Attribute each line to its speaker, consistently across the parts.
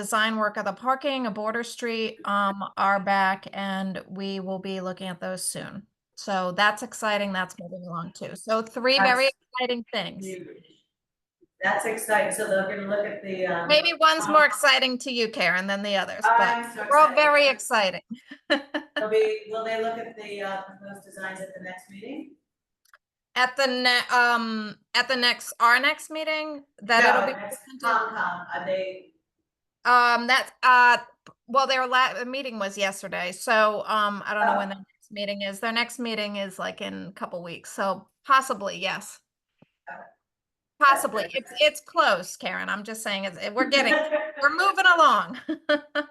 Speaker 1: design work of the parking, a border street, um, are back and we will be looking at those soon. So that's exciting. That's moving along too. So three very
Speaker 2: That's-
Speaker 1: exciting things.
Speaker 2: That's exciting, so they're gonna look at the, um.
Speaker 1: Maybe one's more
Speaker 2: Um,
Speaker 1: exciting to you, Karen, than the others, but
Speaker 2: I'm so
Speaker 1: we're all
Speaker 2: excited.
Speaker 1: very exciting.
Speaker 2: They'll be, will they look at the, uh, proposed designs at the next meeting?
Speaker 1: At the ne- um, at the next, our next meeting, that
Speaker 2: No,
Speaker 1: it'll be.
Speaker 2: at next
Speaker 1: presented.
Speaker 2: Concom, are they,
Speaker 1: Um, that's, uh, well, their la- the meeting was yesterday, so, um, I don't know when their next meeting is. Their next meeting is like in a couple weeks, so possibly, yes.
Speaker 2: Okay.
Speaker 1: Possibly. It's, it's close, Karen. I'm just saying, it's, we're getting, we're moving along.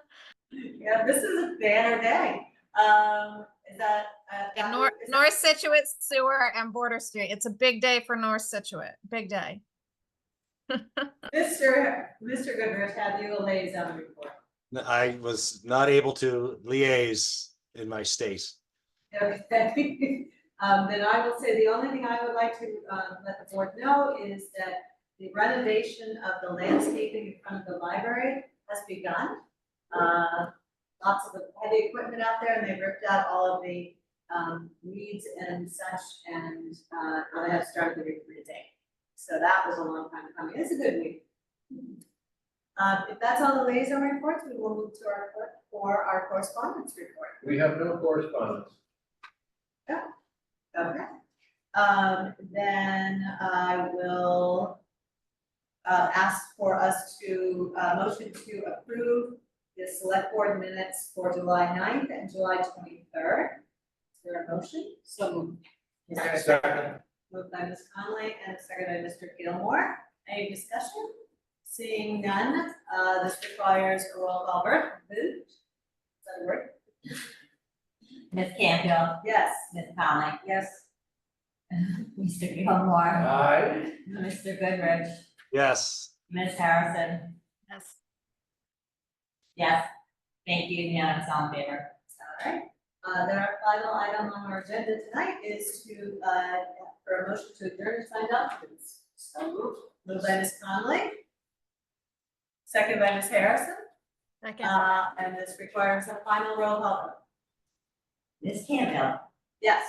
Speaker 2: Yeah, this is a banner day. Um, is that? uh,
Speaker 1: Yeah,
Speaker 2: Dr.
Speaker 1: North,
Speaker 2: is that-
Speaker 1: North Situate Sewer and Border Street. It's a big day for North Situate, big day.
Speaker 2: Mr. Mr. Goodrich, have you a liaison report?
Speaker 3: N- I was not able to liaise in my state.
Speaker 2: Okay. Um, then I will say the only thing I would like to, uh, let the board know is that the renovation of the landscaping in front of the library has begun. Uh, lots of the heavy equipment out there and they ripped out all of the, um, weeds and such and, uh, I have started the recruiting. So that was a long time coming. It's a good week. Uh, if that's all the liaison reports, we will move to our, cor- for our correspondence report.
Speaker 4: We have no correspondence.
Speaker 2: Okay, um, then I will uh, ask for us to, uh, motion to approve the select board minutes for July 9th and July twenty-third. Is there a motion? So moved. Is there a
Speaker 4: Second.
Speaker 2: Moved by Ms. Conley and seconded by Mr. Gilmore. Any discussion? Seeing none, uh, this requires a roll call vote. Vote. Is that a word?
Speaker 5: Ms. Campbell,
Speaker 2: Yes.
Speaker 5: Ms. Conley,
Speaker 2: Yes.
Speaker 5: Mr. Gilmore,
Speaker 4: Aye.
Speaker 5: Mr. Goodrich,
Speaker 3: Yes,
Speaker 5: Ms. Harrison,
Speaker 1: Yes.
Speaker 5: yes. Thank you, unanimous all in favor.
Speaker 2: All right, uh, then our final item on our agenda tonight is to, uh, for a motion to adjourn and sign documents. So moved. Moved by Ms. Conley. Second by Ms. Harrison,
Speaker 1: Second.
Speaker 2: uh, and this requires a final roll call. vote.
Speaker 5: Ms. Campbell,
Speaker 2: Yes.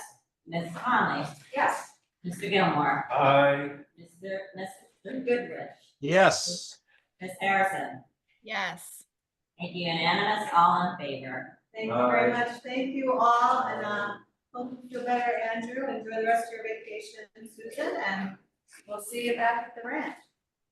Speaker 5: Ms. Conley,
Speaker 2: Yes.
Speaker 5: Mr. Gilmore,
Speaker 4: Aye.
Speaker 5: Mr. Mr. Goodrich,
Speaker 3: yes.
Speaker 5: Ms. Harrison.
Speaker 1: Yes.
Speaker 5: Thank you, unanimous all in favor.
Speaker 2: Thank you very
Speaker 4: Aye.
Speaker 2: much. Thank you all, and, uh, hope you feel better, Andrew. Enjoy the rest of your vacation, Susan, and we'll see you back at the ranch.